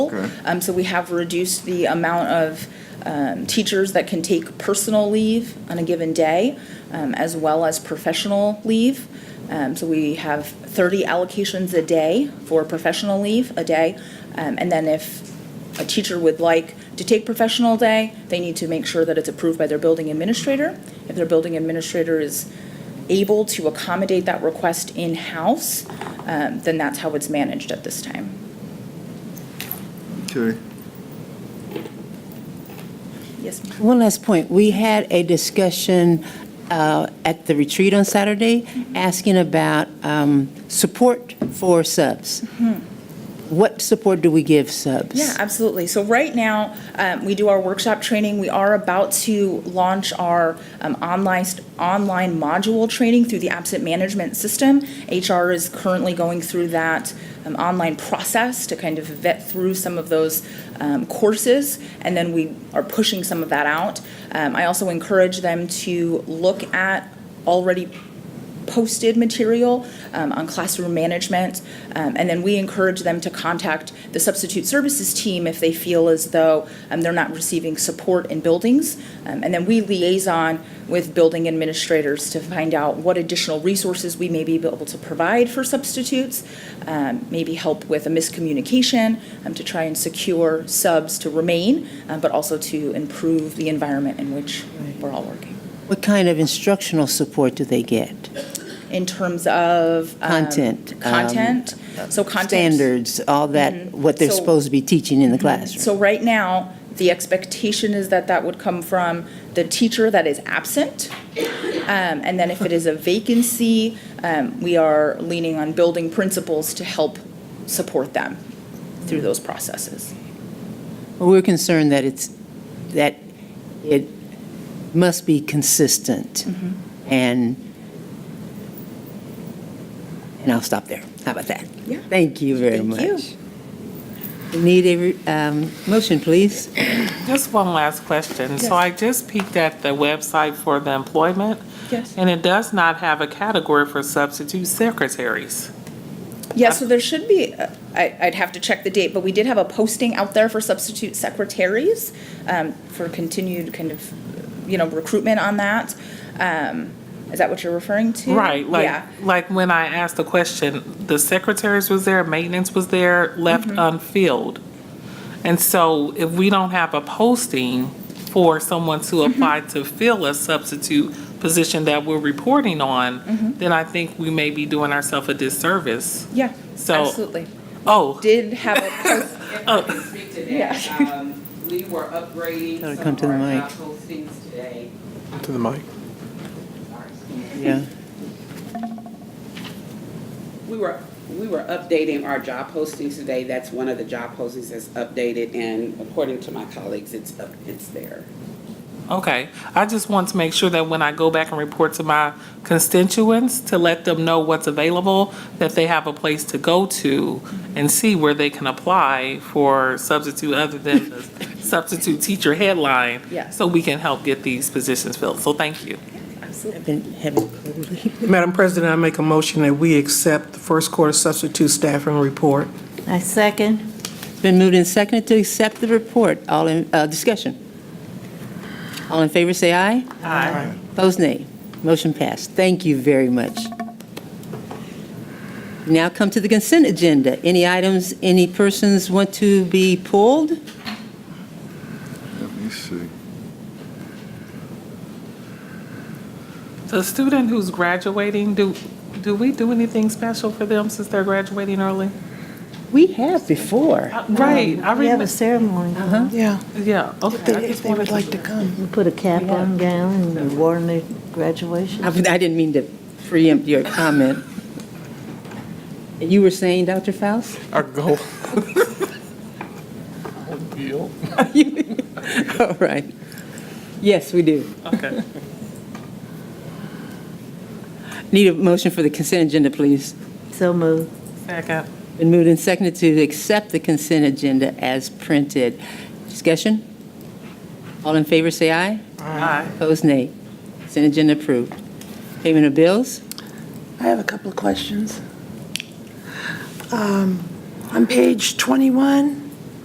Okay. Um, so we have reduced the amount of um, teachers that can take personal leave on a given day, um, as well as professional leave. Um, so we have 30 allocations a day for professional leave a day, Um, and then if a teacher would like to take professional day, they need to make sure that it's approved by their building administrator. If their building administrator is able to accommodate that request in-house, um, then that's how it's managed at this time. Okay. Yes, ma'am. One last point. We had a discussion uh, at the retreat on Saturday, asking about um, support for subs. What support do we give subs? Mm-hmm. Yeah, absolutely. So right now, um, we do our workshop training. We are about to launch our um, online online module training through the absent management system. HR is currently going through that um, online process to kind of vet through some of those um, courses, and then we are pushing some of that out. Um, I also encourage them to look at already posted material um, on classroom management. Um, and then we encourage them to contact the substitute services team if they feel as though um, they're not receiving support in buildings. Um, and then we liaison with building administrators to find out what additional resources we may be able to provide for substitutes, um, maybe help with a miscommunication um, to try and secure subs to remain, um, but also to improve the environment in which we're all working. What kind of instructional support do they get? in terms of um, Content, um, content. so content Standards, all that, what they're So- Mm-hmm. supposed to be teaching in the classroom? So right now, the expectation is that that would come from the teacher that is absent. Um, and then if it is a vacancy, um, we are leaning on building principals to help support them through those processes. Well, We're concerned that it's, that it must be consistent. Mm-hmm. And, and I'll stop there. How about that? Yeah. Thank you very Thank you. much. We Need a, um, motion, please? Just one last question. Yes. So I just peeked at the website for the employment. Yes. And it does not have a category for substitute secretaries. Yeah, so there should be, uh, I, I'd have to check the date, but we did have a posting out there for substitute secretaries um, for continued kind of, you know, recruitment on that. Um, Is that what you're referring to? Right, like, Yeah, like when I asked the question, the secretaries was there, maintenance was there, left Mm-hmm. unfilled. And so if we don't have a posting for someone to Mm-hmm. apply to fill a substitute position that we're reporting Mm-hmm. on, then I think we may be doing ourselves a disservice. yeah, So- absolutely. Oh, Did have a, post- If I can speak to that, Yeah. um, we were upgrading Gotta some come to of the our mic. job postings today. to the mic. Sorry. Yeah. We were, we were updating our job postings today. That's one of the job postings that's updated, and according to my colleagues, it's up, it's there. Okay, I just want to make sure that when I go back and report to my constituents, to let them know what's available, that they have a place to go to and see where they can apply for substitute other than the substitute teacher headline. Yeah. So we can help get these positions filled. So thank you. I've been- haven't- Madam President, I make a motion that we accept the first quarter substitute staffing report. I second. Been moved and seconded to accept the report. All in, uh, discussion. All in favor, say aye. Aye. Opposed, nay. Motion passed. Thank you very much. Now come to the consent agenda. Any items, any persons want to be pulled? Let me see. The student who's graduating, do, do we do anything special for them since they're graduating early? We have before. Uh, Right, I We have remember, a Uh-huh. ceremony. Yeah, yeah, okay. I just wanted to- to come. We put a cap on gown and wore them to graduation. I I didn't mean to preempt your comment. You were saying, Dr. Faust? Our goal. All right. Yes, we do. Okay. Need a motion for the consent agenda, please. So moved. Second. Been moved and seconded to accept the consent agenda as printed. Discussion? All in favor, say aye. Aye. Opposed, nay. Consent agenda approved. Payment of bills? I have a couple of questions. Um, On page 21,